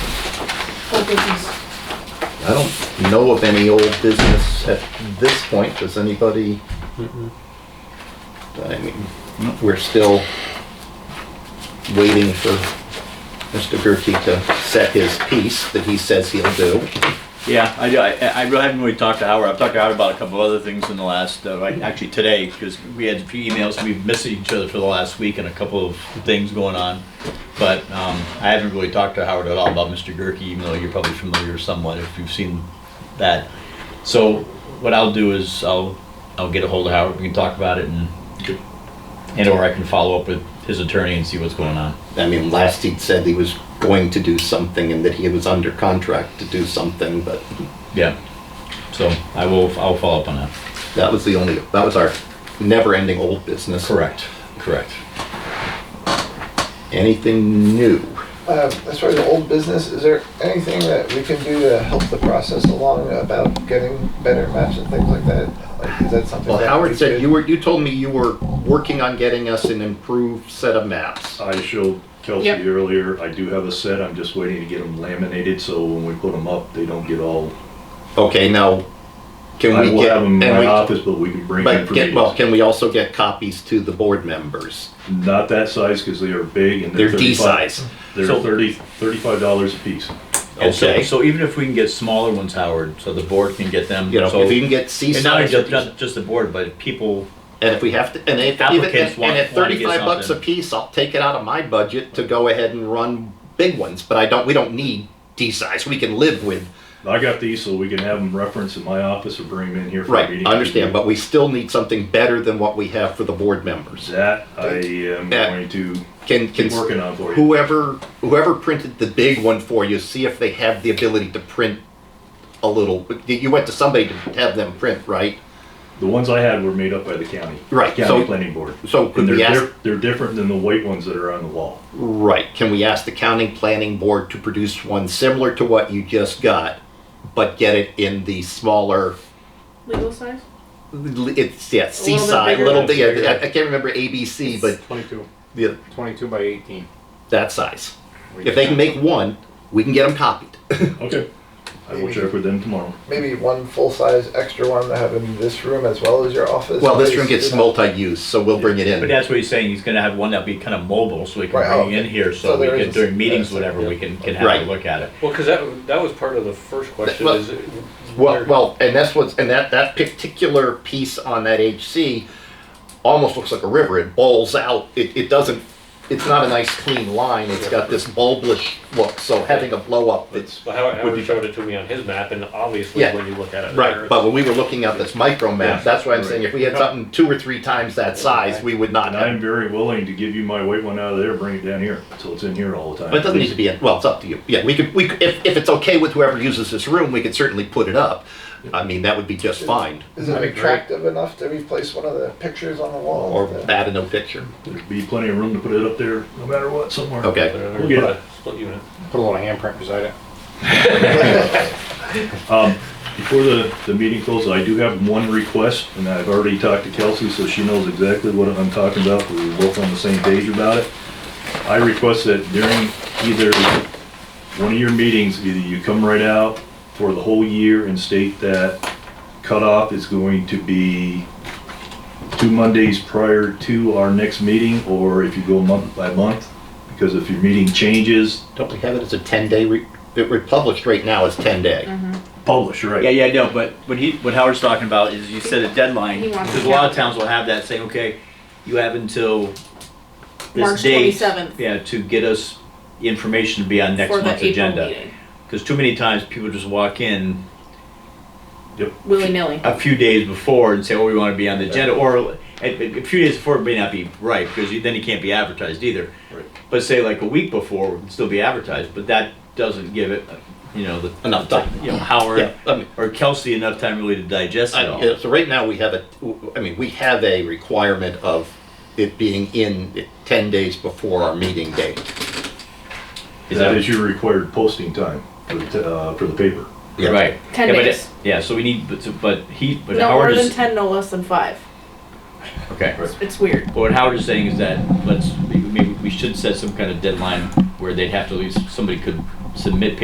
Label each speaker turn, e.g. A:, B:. A: business?
B: I don't know of any old business at this point. Does anybody? I mean, we're still waiting for Mr. Gerke to set his piece that he says he'll do.
C: Yeah, I, I, I really haven't really talked to Howard. I've talked to Howard about a couple of other things in the last, uh, like, actually today, because we had a few emails, we've missed each other for the last week and a couple of things going on. But, um, I haven't really talked to Howard at all about Mr. Gerke, even though you're probably familiar somewhat if you've seen that. So what I'll do is I'll, I'll get a hold of Howard. We can talk about it and, and or I can follow up with his attorney and see what's going on.
B: I mean, last he'd said he was going to do something and that he was under contract to do something, but
C: Yeah. So I will, I'll follow up on that.
B: that was the only, that was our never-ending old business.
C: Correct, correct.
B: Anything new?
D: Uh, As far as the old business, is there anything that we can do to help the process along about getting better maps and things like that? Like, Is that something?
B: Well,
D: that
B: Howard
D: we
B: said
D: could-
B: you were, you told me you were working on getting us an improved set of maps.
E: I showed
A: Yep.
E: Kelsey earlier, I do have a set, I'm just waiting to get them laminated, so when we put them up, they don't get all,
B: Okay, now, can
E: I
B: we
E: will
B: get,
E: have them in
B: and
E: my
B: we,
E: office, but we can bring them
B: but
E: for
B: get, well,
E: meetings.
B: can we also get copies to the board members?
E: Not that size, because they are big and they're
B: They're D
E: 35
B: size.
E: They're
C: So-
E: thirty, thirty-five dollars a piece.
C: And so,
B: Okay.
C: so even if we can get smaller ones, Howard, so the board can get them.
B: You know,
C: so-
B: if you can get C
C: And not
B: size,
C: just,
B: and
C: not just the board, but people,
B: if we have to, and if, even-
C: Applicants
B: and
C: want-
B: and at
C: wanna get
B: thirty-five bucks a
C: something.
B: piece, I'll take it out of my budget to go ahead and run big ones, but I don't, we don't need D size, we can live with,
E: I got these, so we can have them referenced in my office or bring them in here for a
B: right,
E: meeting.
B: I understand, but we still need something better than what we have for the board members.
E: That I am
B: Yeah.
E: going to
B: Can, can.
E: keep working on for you.
B: whoever whoever printed the big one for you, see if they have the ability to print a little. You went to somebody to have them print, right?
E: The ones I had were made up by the county.
B: Right,
E: County
B: so-
E: Planning Board.
B: so could
E: And they're
B: we ask-
E: diff- They're different than the white ones that are on the wall.
B: Right. Can we ask the county planning board to produce one similar to what you just got, but get it in the smaller?
A: Legal size?
B: It's yeah,
A: bit
B: seaside,
A: bigger.
B: little bit. Yeah, I, I can't remember ABC, but
F: 22,
B: yeah,
F: 22 by 18.
B: that size. If they can make one, we can get them copied.
E: Okay. I will check with them tomorrow.
D: Maybe one full-size extra one to have in this room as well as your office?
B: Well, this
D: space,
B: room gets
D: you know?
B: multi-use, so we'll bring it
C: but
B: in.
C: that's what he's saying, he's gonna have one that'll be kind of mobile, so we
D: Right,
C: can bring
D: oh,
C: it in here, so
D: so
C: we
D: there
C: can,
D: is-
C: during meetings,
D: yes,
C: whatever, we can, can
B: Right.
C: have a look at it.
F: Well, because that, that was part of the first question
B: Well-
F: is. it-
B: Well,
F: where-
B: well, and that's what's and that that particular piece on that HC almost looks like a river. It bowls out. It, it doesn't. It's not a nice clean line. It's got this bulbish look. So having a blow up, it's
F: Well, Howard
B: would
F: Howard
B: be-
F: showed it to me on his map and obviously
B: Yeah.
F: when you look at it. there,
B: right. But when we were looking at this micro map, that's why I'm saying if we had something two or three times that size, we would not.
E: And I'm
B: Have,
E: very willing to give you my white one out of there, bring it down here, so it's in here all the time.
B: but it doesn't need to be. In, well, it's up to you. Yeah, we could. We could, if if it's okay with whoever uses this room, we could certainly put it up. I mean, that would be just fine.
D: Is it attractive enough to replace one of the pictures on the wall?
B: Or
D: The-
B: that in no picture.
E: There'd be plenty of room to put it up there, no matter what, somewhere.
F: They're
B: Okay.
F: gonna
E: We'll get
F: put
E: it.
F: a Split unit.
G: Put a little handprint beside it.
E: Um, before the, the meeting closes, I do have one request, and I've already talked to Kelsey, so she knows exactly what I'm talking about, we were both on the same page about it. I request that during either one of your meetings, either you come right out for the whole year and state that cutoff is going to be two Mondays prior to our next meeting, or if you go month by month, because if your meeting changes,
B: Don't we have it as a ten day? Re- it republished right now as ten day.
E: publish, right?
C: Yeah, yeah, I know, but what he, what Howard's talking about is you set a deadline,
A: He wants
C: because
A: to
C: a lot of
A: count.
C: towns will have that saying, okay, you have until
A: March
C: this date.
A: 27th.
C: Yeah, to get us information to be on next
A: for the
C: month's
A: April
C: agenda.
A: meeting.
C: Because too many times people just walk in
A: Willy-nilly.
C: a few days before and say, oh, we want to be on the agenda, or a, a few days before it may not be right, because you- then it can't be advertised either.
E: Right.
C: But say like a week before, it can still be advertised, but that doesn't give it, you know, the.
B: Enough time.
C: You know, Howard
B: Yeah, I mean-
C: or Kelsey enough time really to digest
B: I
C: it
B: don't- yeah,
C: all.
B: so right now we have a, I mean, we have a requirement of it being in it ten days before our meeting date.
C: Is
E: That
C: that-
E: is your required posting time for the, t- uh, for the paper.
B: Yeah.
C: Right.
A: 10
C: Yeah, but
A: days.
C: it- Yeah, so we need, but, but he, but
A: No more
C: Howard
A: than
C: is,
A: ten, no less than five.
C: okay.
A: It's weird.
C: But what Howard is saying is that let's, maybe we should set some kind of deadline where they'd have to at least, somebody could submit